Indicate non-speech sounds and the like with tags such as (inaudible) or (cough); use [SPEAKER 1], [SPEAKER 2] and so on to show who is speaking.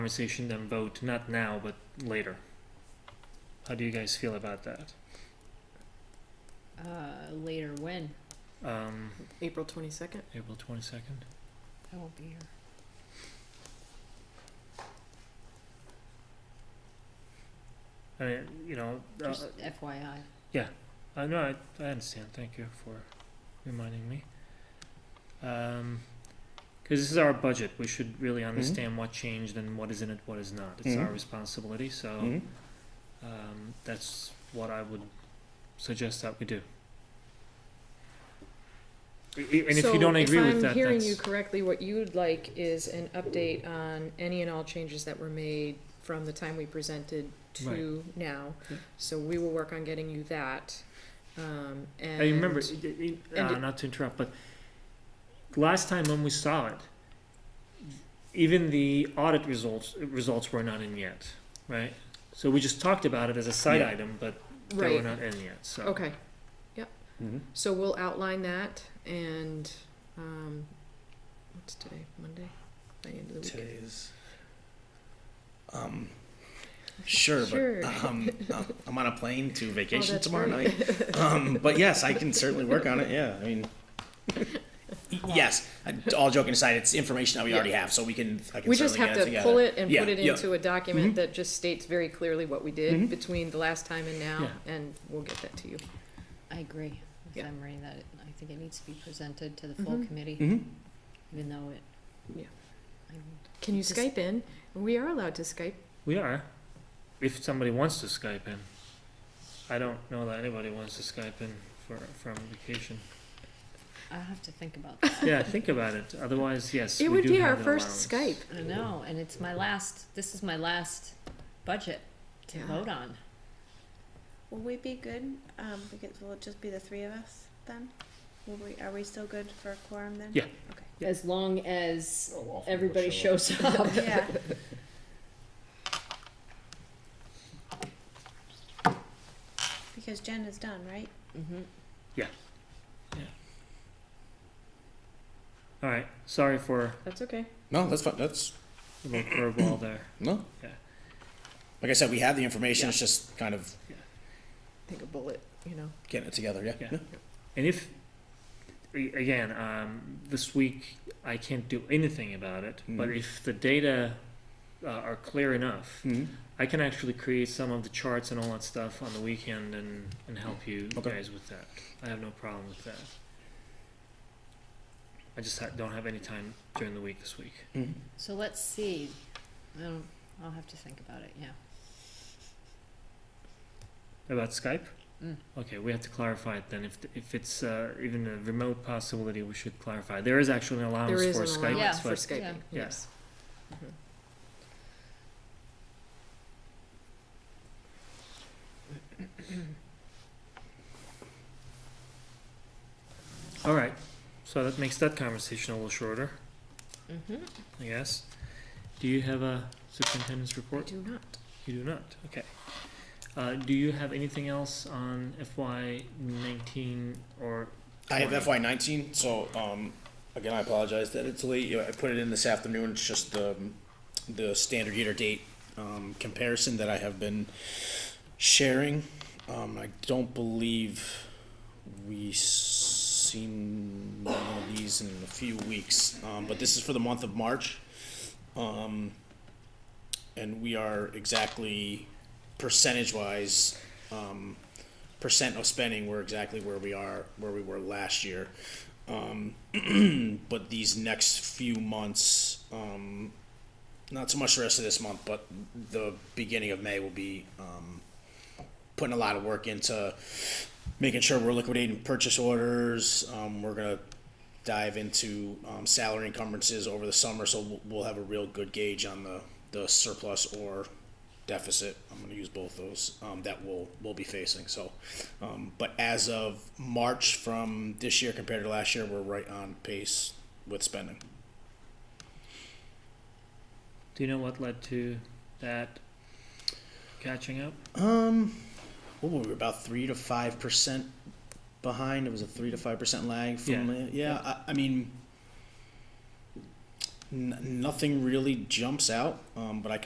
[SPEAKER 1] conversation and vote, not now, but later. How do you guys feel about that?
[SPEAKER 2] Uh, later when?
[SPEAKER 1] Um,
[SPEAKER 3] April twenty-second?
[SPEAKER 1] April twenty-second?
[SPEAKER 2] I won't be here.
[SPEAKER 1] I mean, you know, uh,
[SPEAKER 2] Just FYI.
[SPEAKER 1] I know, I, I understand, thank you for reminding me. Um 'cause cause this is our budget, we should really understand what changed and what is in it, what is not, it's our
[SPEAKER 4] Mhm.
[SPEAKER 1] responsibility, so.
[SPEAKER 3] Mm-hmm.
[SPEAKER 4] Mhm.
[SPEAKER 1] Um, that's what I would suggest that we do. I- I- And if you don't agree with that,
[SPEAKER 3] So if I'm hearing you
[SPEAKER 1] that's,
[SPEAKER 3] correctly, what you'd like is an update on any and all changes that were made from the time we presented to now.
[SPEAKER 1] Yeah.
[SPEAKER 3] So we will work on getting you that, um, and.
[SPEAKER 1] I remember, it- it-
[SPEAKER 3] and
[SPEAKER 1] uh,
[SPEAKER 3] it-
[SPEAKER 1] not to interrupt, but last time when we saw it, even the audit results, results were not in yet, right? So we just talked about it as a side
[SPEAKER 4] Yeah.
[SPEAKER 1] item, but they were
[SPEAKER 3] Right,
[SPEAKER 1] not in yet, so.
[SPEAKER 3] okay,
[SPEAKER 4] Mhm.
[SPEAKER 3] so we'll outline that and, um, what's today, Monday? By the end of the weekend.
[SPEAKER 4] Today's. Um, sure,
[SPEAKER 3] Sure. Oh,
[SPEAKER 4] but (laughs) um, uh, I'm on a plane to vacation
[SPEAKER 3] that's
[SPEAKER 4] tomorrow
[SPEAKER 3] right. (laughs)
[SPEAKER 4] night. Um, but yes, I can certainly work on it. Yeah, I mean, yes. I- All joking aside, it's information that we already have, so we can. I can
[SPEAKER 3] We just
[SPEAKER 4] certainly
[SPEAKER 3] have
[SPEAKER 4] get it
[SPEAKER 3] to
[SPEAKER 4] together.
[SPEAKER 3] pull it and
[SPEAKER 4] Yeah,
[SPEAKER 3] put it
[SPEAKER 4] yeah. Mm-hmm.
[SPEAKER 3] into a document that just states very clearly what we did between the last time and now,
[SPEAKER 1] Yeah.
[SPEAKER 3] and we'll get that to you.
[SPEAKER 2] I agree with
[SPEAKER 3] Yeah.
[SPEAKER 2] Emery that it- I think it needs to be presented to the full
[SPEAKER 3] Mhm.
[SPEAKER 2] committee,
[SPEAKER 4] Mhm.
[SPEAKER 2] even though it.
[SPEAKER 3] Yeah.
[SPEAKER 2] I'm-
[SPEAKER 3] Can you
[SPEAKER 2] Just-
[SPEAKER 3] Skype in? We are allowed to Skype.
[SPEAKER 1] We are, if somebody wants to Skype in. I don't know that anybody wants to Skype in for, from vacation.
[SPEAKER 2] I'll have to think about that.
[SPEAKER 1] Yeah, think about it. Otherwise, yes,
[SPEAKER 3] It
[SPEAKER 1] we
[SPEAKER 3] would
[SPEAKER 1] do
[SPEAKER 3] be
[SPEAKER 1] have
[SPEAKER 3] our
[SPEAKER 1] an
[SPEAKER 3] first
[SPEAKER 1] allowance.
[SPEAKER 3] Skype.
[SPEAKER 2] I know, and it's my last, this is my last budget to
[SPEAKER 3] Yeah.
[SPEAKER 2] vote on.
[SPEAKER 5] Will we be good? Um, because will it just be the three of us then? Will we, are we still good for a quorum then?
[SPEAKER 1] Yeah.
[SPEAKER 5] Okay.
[SPEAKER 2] As long as
[SPEAKER 4] Oh,
[SPEAKER 2] everybody shows
[SPEAKER 3] (laughs)
[SPEAKER 2] up.
[SPEAKER 5] Yeah,
[SPEAKER 3] (laughs)
[SPEAKER 5] because Jen is done, right?
[SPEAKER 2] Mhm.
[SPEAKER 1] All right. Sorry for
[SPEAKER 3] That's okay.
[SPEAKER 4] No, that's fine. That's
[SPEAKER 1] the little curveball there.
[SPEAKER 4] no.
[SPEAKER 1] Yeah.
[SPEAKER 4] Like I said, we have the information.
[SPEAKER 1] Yeah.
[SPEAKER 4] It's just kind of
[SPEAKER 3] Take a bullet, you know.
[SPEAKER 4] getting it together. Yeah.
[SPEAKER 1] Yeah.
[SPEAKER 4] No.
[SPEAKER 1] And if, a- again, um, this week I can't do anything about it, but
[SPEAKER 4] Mhm.
[SPEAKER 1] if the data uh, are clear enough,
[SPEAKER 4] Mhm.
[SPEAKER 1] I can actually create some of the charts and all that stuff on the weekend and, and help you
[SPEAKER 4] Okay.
[SPEAKER 1] guys with that. I have no problem with that. I just ha- don't have any time during the week this week.
[SPEAKER 4] Mhm.
[SPEAKER 2] So let's see. I don't, I'll have to think about it, yeah.
[SPEAKER 1] About Skype?
[SPEAKER 2] Mm.
[SPEAKER 1] Okay, we have to clarify it then. If, if it's uh, even a remote possibility, we should clarify. There is actually an allowance
[SPEAKER 3] There is
[SPEAKER 1] for
[SPEAKER 3] an
[SPEAKER 1] Skype.
[SPEAKER 3] allowance
[SPEAKER 2] Yeah.
[SPEAKER 3] for
[SPEAKER 1] but-
[SPEAKER 3] Skyping,
[SPEAKER 1] Yeah.
[SPEAKER 3] yes. Mhm.
[SPEAKER 1] All right, so that makes that conversation a little shorter,
[SPEAKER 2] Mm-hmm.
[SPEAKER 1] I guess. Do you have a superintendent's
[SPEAKER 3] I
[SPEAKER 1] report?
[SPEAKER 3] do not.
[SPEAKER 1] You do not, okay. Uh, do you have anything else on FY nineteen or,
[SPEAKER 4] I have
[SPEAKER 1] Twenty.
[SPEAKER 4] FY nineteen, so, um, again, I apologize that it's late, You know, I put it in this afternoon, it's just the, um, the standard year to date, um, comparison that I have been sharing. Um, I don't believe we s- seen one of these in a few weeks, um, but this is for the month of March. Um, and we are exactly percentage-wise, um, percent of spending we're exactly where we are where we were last year um, (clears throat) but these next few months um, not so much the rest of this month but the beginning of may will be um, putting a lot of work into making sure we're liquidating purchase orders um, we're going to dive into um, salary encumbrances over the summer so we'll, we'll have a real good gauge on the, the surplus or deficit. I'm going to use both those um, that we'll we'll be facing. So, um, but as of March from this year compared to last year, we're right on pace with spending.
[SPEAKER 1] do you know what led to that catching up?
[SPEAKER 4] Um, what were we about three to five percent behind? It was a three to five percent lag from
[SPEAKER 1] Yeah.
[SPEAKER 4] yeah. yeah I, I mean, N- nothing really jumps out, um, but I